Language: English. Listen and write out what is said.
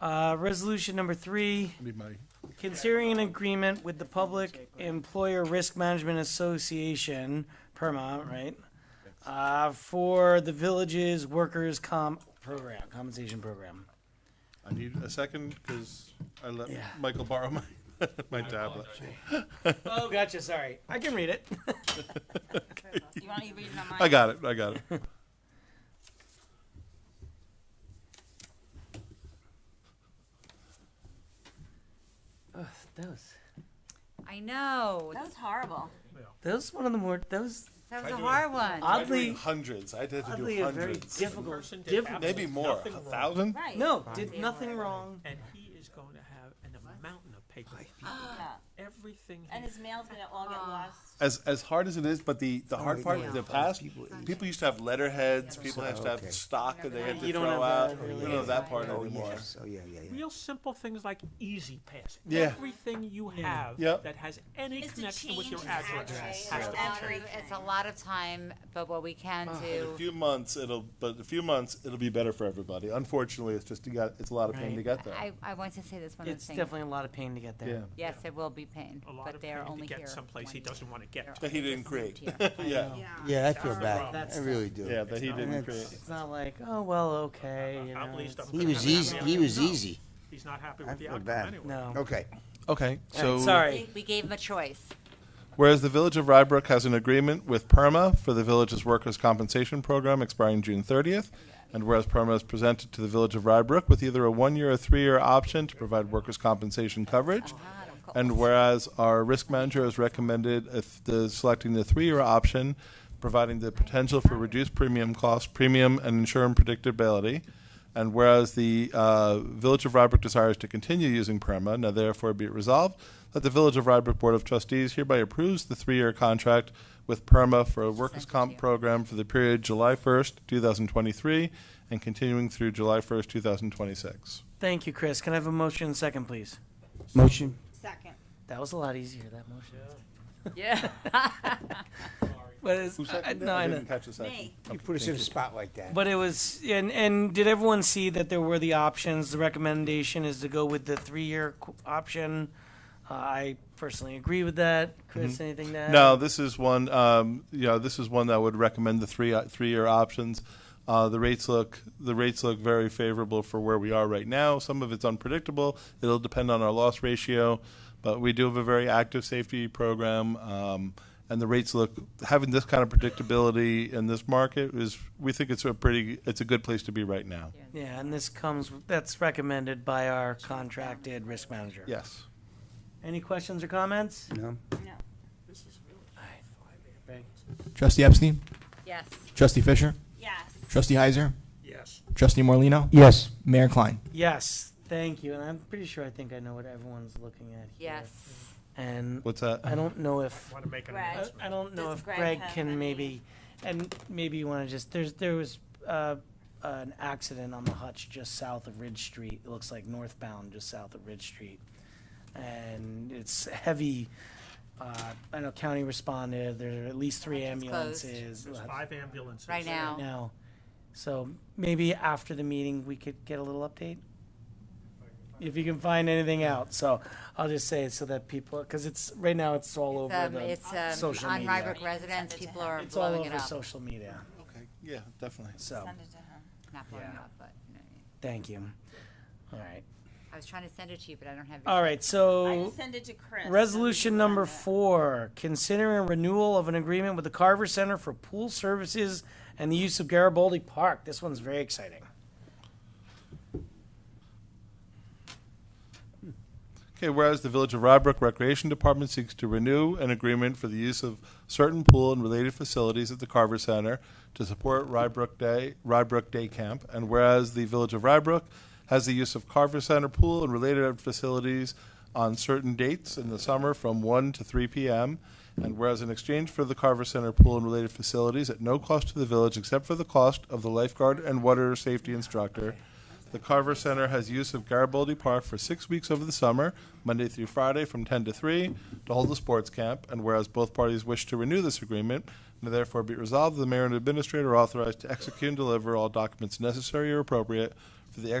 Uh, resolution number three, Be my, considering an agreement with the Public Employer Risk Management Association, PERMA, right? Uh, for the village's workers' comp program, compensation program. I need a second because I let Yeah. Michael borrow my, my tablet. Oh, gotcha, sorry. I can read it. You want to read it on mine? I got it, I got it. That was, I know. That was horrible. that was one of the more, that was That was a hard one. oddly, Hundreds, I had to oddly do a very hundreds. difficult, difficult. Maybe more, a Nothing wrong. thousand? Right. No, did nothing wrong. And he is going to have an mountain of paper. Yeah. Everything. he- And his mail's gonna all get lost. As, as hard as it is, but the, the hard part, yeah. is the past, people used to have letterheads, people used Oh, to have stock that they had to throw out. We don't have that part anymore. Yes, oh, yeah, yeah, yeah. Real simple things like easy pass. Yeah. Everything you have Yep. that has any Is to connection with your change his address address. has Right. to. Every- It's a lot of time, but what we can In a do, few months, it'll, but a few months, it'll be better for everybody. Unfortunately, it's just, you got, it's a lot of pain to Right. get there. I, I want to say this one other It's thing. definitely a lot of pain to get Yeah. there. Yes, it will be pain, A lot but of they're pain to only here. get someplace he one doesn't want to year. get. That he didn't They're only create. just moved here. Yeah, Yeah, I feel the problem. bad. That's I tough. really do. yeah, that he didn't That's- create. It's not like, oh, well, okay, you At know, least it's- I'm He gonna was have an easy, outcome. he was easy. He's not happy I with the feel outcome bad. anyway. no. Okay. Okay, so. Sorry. We gave him a choice. Whereas the Village of Rybrook has an agreement with PERMA for the village's workers' compensation program expiring June 30th, and whereas PERMA is presented to the Village of Rybrook with either a one-year or three-year option to provide workers' compensation coverage, Ah, of course. and whereas our risk manager has recommended if the, selecting the three-year option, providing the potential for reduced premium costs, premium and insurance predictability, and whereas the uh, Village of Rybrook desires to continue using PERMA, now therefore be it resolved that the Village of Rybrook Board of Trustees hereby approves the three-year contract with PERMA for a workers' Sent it to comp you. program for the period July 1st, 2023, and continuing through July 1st, 2026. Thank you, Chris. Can I have a motion second, please? Motion? Second. That was a lot easier, that motion. Yeah. But it's, Who I, seconded it? Uh, no, I I know. didn't catch the second. Me. You put us in a spot like that. But it was, and, and did everyone see that there were the options? The recommendation is to go with the three-year qu- option. Uh, I personally agree with that. Chris, anything to add? No, this is one. Um, you know, this is one that would recommend the three three year options. Uh, the rates look the rates look very favorable for where we are right now. Some of it's unpredictable. It'll depend on our loss ratio, but we do have a very active safety program, um, and the rates look having this kind of predictability in this market is we think it's a pretty it's a good place to be right now. Yeah, and this comes, that's recommended by our contracted risk manager. Yes. Any questions or comments? No? Trustee Epstein? Yes. Trustee Fisher? Yes. Trustee Heiser? Yes. Trustee Morlino? Yes. Mayor Klein? Yes, thank you. And I'm pretty sure I think I know what everyone's looking at here. Yes. And What's that? I don't know if. Want to make an Right. I- announcement? I don't know Does if Greg Greg have can any- maybe, and maybe you want to just, there's, there was uh, an accident on the hutch just south of Ridge Street. It looks like northbound, just south of Ridge Street. And it's heavy, uh, I know county responded, there are at least three Hutch is closed. ambulances. There's five ambulances. Right now. Now, so maybe after the meeting, we could get a little update? If you can find anything out, so I'll just say so that people, because it's, right now, it's all over Um, the. It's um, social on media. Rybrook residents, people are It's all blowing it over up. social media, Okay. Yeah, definitely. so, Send it to her. Not blowing it Yeah. up, but, you know what I mean. thank you. All right, I was trying to send it to you, but I don't have. your- all right, I so, just send it to Chris. resolution number four. four, considering renewal of an agreement with the Carver Center for Pool Services and the use of Garibaldi Park, this one's very exciting. Okay, whereas the Village of Rybrook Recreation Department seeks to renew an agreement for the use of certain pool and related facilities at the Carver Center to support Rybrook Day, Rybrook Day Camp, and whereas the Village of Rybrook has the use of Carver Center pool and related facilities on certain dates in the summer from 1 to 3 p.m., and whereas in exchange for the Carver Center pool and related facilities at no cost to the village except for the cost of the lifeguard and water safety instructor, the Carver Center has use of Garibaldi Park for six weeks over the summer, Monday through Friday from 10 to 3, to hold a sports camp. And whereas both parties wish to renew this agreement, and therefore be resolved, the mayor and administrator are authorized to execute and deliver all documents necessary or appropriate